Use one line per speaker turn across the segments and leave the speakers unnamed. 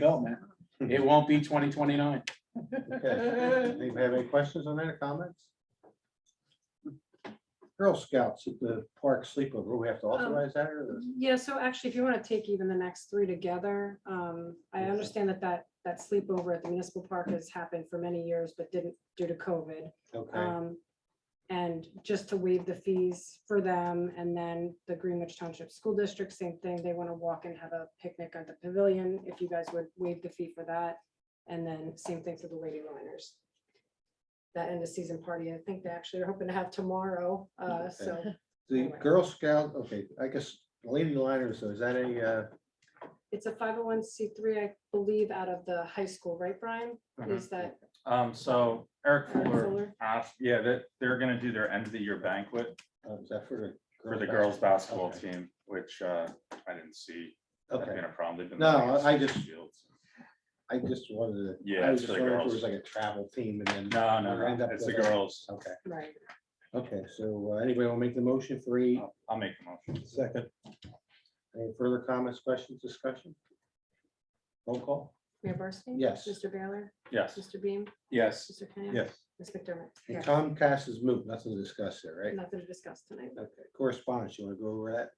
go, man. It won't be twenty twenty-nine.
Okay. Anybody have any questions on that or comments? Girl Scouts at the park sleepover, we have to authorize that or?
Yeah, so actually, if you want to take even the next three together, um, I
Okay.
understand that that, that sleepover at the municipal park has happened for many years, but didn't due to COVID.
Okay,
Um, and just to waive the fees for them, and then the Greenwich Township School District, same thing, they want to walk and have a picnic at the pavilion, if you guys would waive the fee for that. And then same thing for the Lady Liners. That end of season party, I think they actually are hoping to have tomorrow, uh, so.
the Girl Scout, okay, I guess Lady Liners, so is that a, uh,
It's a five oh one C three, I believe, out of the high school, right, Brian?
Uh-huh.
Is that
Um, so Eric
Eric
Fuller
Fuller?
asked, yeah, that they're gonna do their end of the year banquet
uh, is that for the?
for the girls' basketball
Okay,
team, which, uh, I didn't see. that
Okay,
being a problem. They've been
No,
playing at
I
Six
just-
Fields.
I just wanted to.
Yeah,
I was
it's
just
for the
wondering if it
girls.
was like a travel team and then,
No,
Or
no,
end
no,
up
it's the
with a-
girls.
okay,
right?
okay, so uh, anybody will make the motion for eight?
I'll I'll make the motion.
Second. Any further comments, questions, discussion? Roll call?
Mayor Barsting?
Yes.
Mr. Baylor?
Yes,
Mr. Beam?
yes,
Mr. Kenny? Ms. McDermott?
And
Yeah,
Comcast is moved, nothing to discuss there, right?
Nothing to discuss tonight.
Okay, correspondence, you wanna go over that?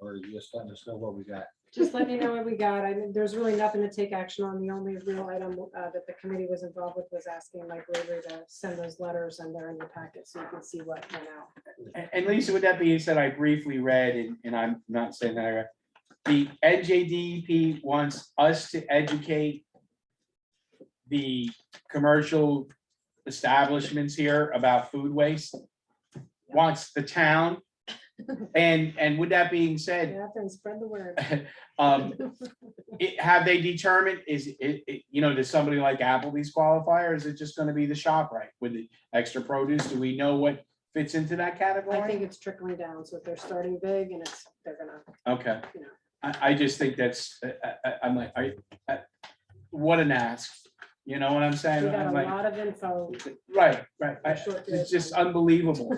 Or you just let us know what we got?
Just let you know what we got. I mean, there's really nothing to take action on. The only real item uh, that the committee was involved with was asking Mike Lavery to send those letters and they're in the packet so you can see what went out.
And, and Lisa, with that being said, I briefly read, and, and I'm not saying that I read, the NJDEP E wants us to educate the commercial establishments here about food waste, wants the town. And, and with that being said,
Get out there and spread the word.
um, it, have they determined, is it, it, you know, does somebody like Applebee's qualify, or is it just gonna be the shop right with the extra produce? Do we know what fits into that
I think
category?
it's trickling down. So if they're starting big and it's, they're gonna,
Okay,
you know.
I, I just think that's, I, I, I'm like, I, I, what an ask, you know what I'm saying?
We got a
I'm like,
lot of info.
right, right,
in
I-
a short period
it's
of
just
time.
unbelievable.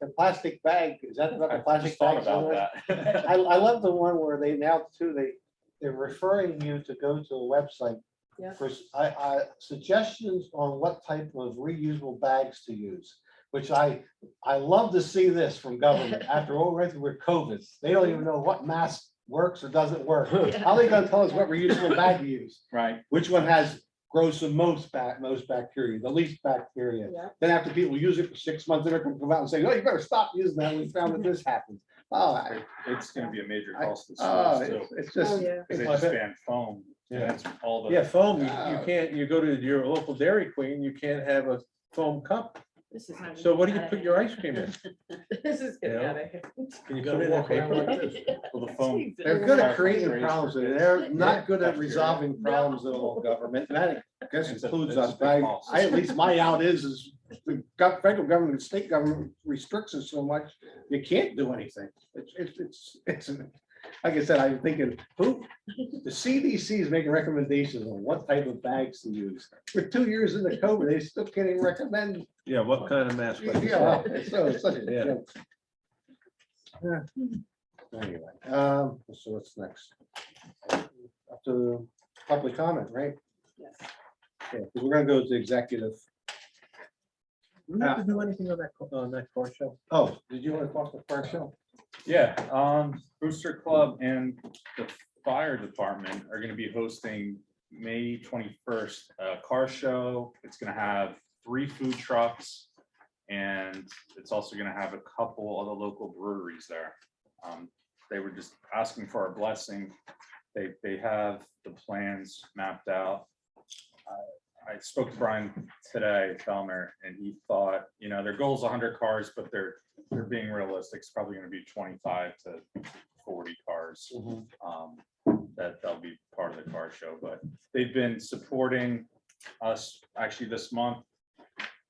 The plastic bag, is that about the
I
plastic
just thought
bag?
about that.
I, I love the one where they now too, they, they're referring you to go to a website
Yeah.
for, s- I, I, suggestions on what type of reusable bags to use. Which I, I love to see this from government after all, right, we're COVID, they don't even know what mask works or doesn't work. How they gonna tell us what reusable bag to use?
Right,
Which one has grows the most bac, most bacteria, the least bacteria?
Yeah.
Then after people use it for six months, they're gonna come out and say, oh, you better stop using that, we found that this happens. Oh, I-
It's gonna be a major
I-
cost to
Oh,
schools too,
it's- it's
Oh,
just.
yeah.
because they
it's
just
like-
banned foam. and
Yeah.
that's all the.
Yeah, foam, you, you
Oh.
can't, you go to your local Dairy Queen, you can't have a foam cup.
This is.
So what do you put your ice cream in?
This is
You
getting
know?
out of hand.
Can you
Go
put
to
it in
walk around
paper?
like this. Well, the foam,
They're good at
Park
creating
race
problems,
for
and
kids.
they're not
Yeah,
good at
that's
resolving
No.
problems at all, government, and that, I guess
It's a-
includes
it's a
us,
big
but I,
cost.
I- at least my out is, is the gov- federal government, and state government restricts us so much, you can't do anything. It's, it's, it's, it's, an- like I said, I'm thinking, who, the CDC is making recommendations on what type of bags to use. For two years into COVID, they still can't even recommend,
Yeah, what kind of mask? would you
yeah,
sell?
so it's such a
Yeah.
joke. Yeah. Anyway, um, so what's next? Up to public comment, right?
Yes.
Yeah, 'cause We're gonna go to executive. Uh,
We
Ah.
have to do anything on that, co- on that car show?
Oh, did you want to talk to first show?
yeah, um, Booster Club and the fire department are gonna be hosting May twenty-first, a car show. It's gonna have three food trucks. And it's also gonna have a couple of the local breweries there. Um, they were just asking for our blessing. They, they have the plans mapped out. I- I spoke to Brian today, Felmer, and he thought, you know, their goal's hundred cars, but they're, they're being realistic. It's probably gonna be twenty-five to forty cars
Mm-hmm.
um, that they'll be part of the car show, but they've been supporting us actually this month.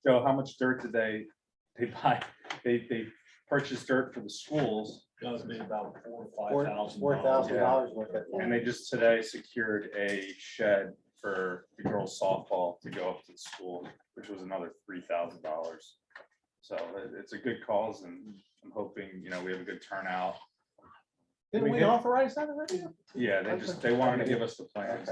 Joe, how much dirt did they, they buy? They, they purchased dirt for the schools
Four thousand dollars worth of.
and they just today secured a shed for the girls softball to go up to the school, which was another three thousand dollars. So it- it's a good cause and I'm hoping, you know, we have a good turnout.
Didn't
We
we
did.
authorize that already?
Yeah, they just, they wanted to give us the plans.